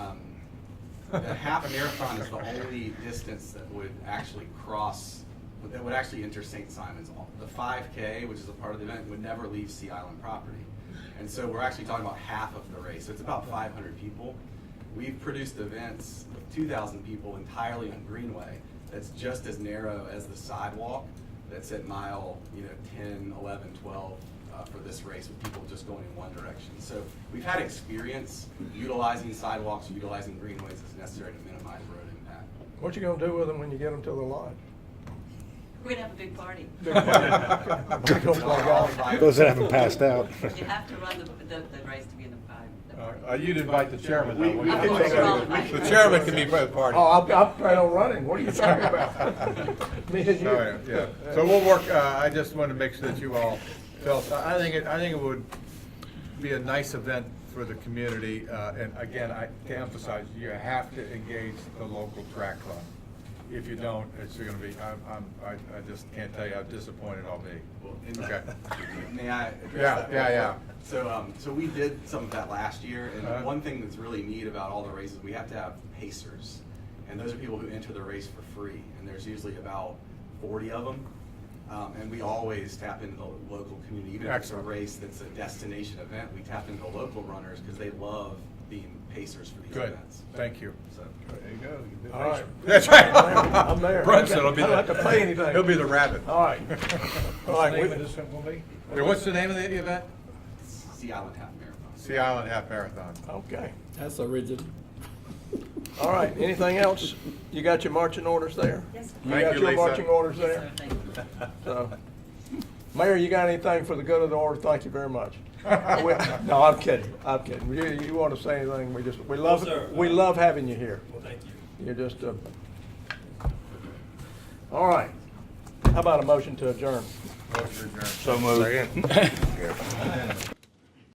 the Um, half marathon is the only distance that would actually cross, that would actually enter St. Simon's. The five K, which is a part of the event, would never leave Sea Island property. And so we're actually talking about half of the race, so it's about five hundred people. We've produced events with two thousand people entirely on Greenway, that's just as narrow as the sidewalk, that's at mile, you know, 10, 11, 12 uh, for this race with people just going in one direction. So we've had experience utilizing sidewalks, utilizing greenways as necessary to minimize road impact. What you gonna do with them when you get them to the lodge? We're gonna have a big party. Big party. Big old bug Those that haven't passed out. You have to run the, the, the race to be in the, uh, the party. Uh, you'd invite the chairman, though. We- we wouldn't you? could take- we could- The chairman can be part of the party. Oh, I'll, I'll plan on running, what are you talking about? Me and you. All right, yeah. So we'll work, uh, I just wanted to make sure that you all felt, I I think, it- I think it would be a nice event for the community. uh, And again, I, to emphasize, you have to engage the local track club. If you don't, it's gonna be, I'm, I'm, I, I just can't tell you how disappointed I'll Well, be. and- Okay. May I address Yeah, that? yeah, yeah. So, um, so we did some of that last year, Uh-huh. and one thing that's really neat about all the races, we have to have pacers. And those are people who enter the race for free, and there's usually about forty of them. Um, and we always tap into the local community, even if it's a Excellent. race that's a destination event, we tap into local runners, because they love being pacers for these Good, events. thank you. So, There you go. All right. That's right. I'm there. Brunson will be I the. don't have to pay anything. He'll be the rabbit. All right, all right, we- Yeah, What's the name of the event? Sea Island Half Marathon. Sea Island Half Marathon. Oh, okay, That's original. all right, anything else? You got your marching orders there? Yes. You Thank got you, your Lisa. marching orders So, there, thank you. so. Mayor, you got anything for the good of the order? Thank you very much. We- No, I'm kidding, I'm kidding. You, you wanna say anything, we just, we love, sir. we love having you here. Well, thank you. You're just a, all right. How about a motion to adjourn? Motion adjourned. So moved.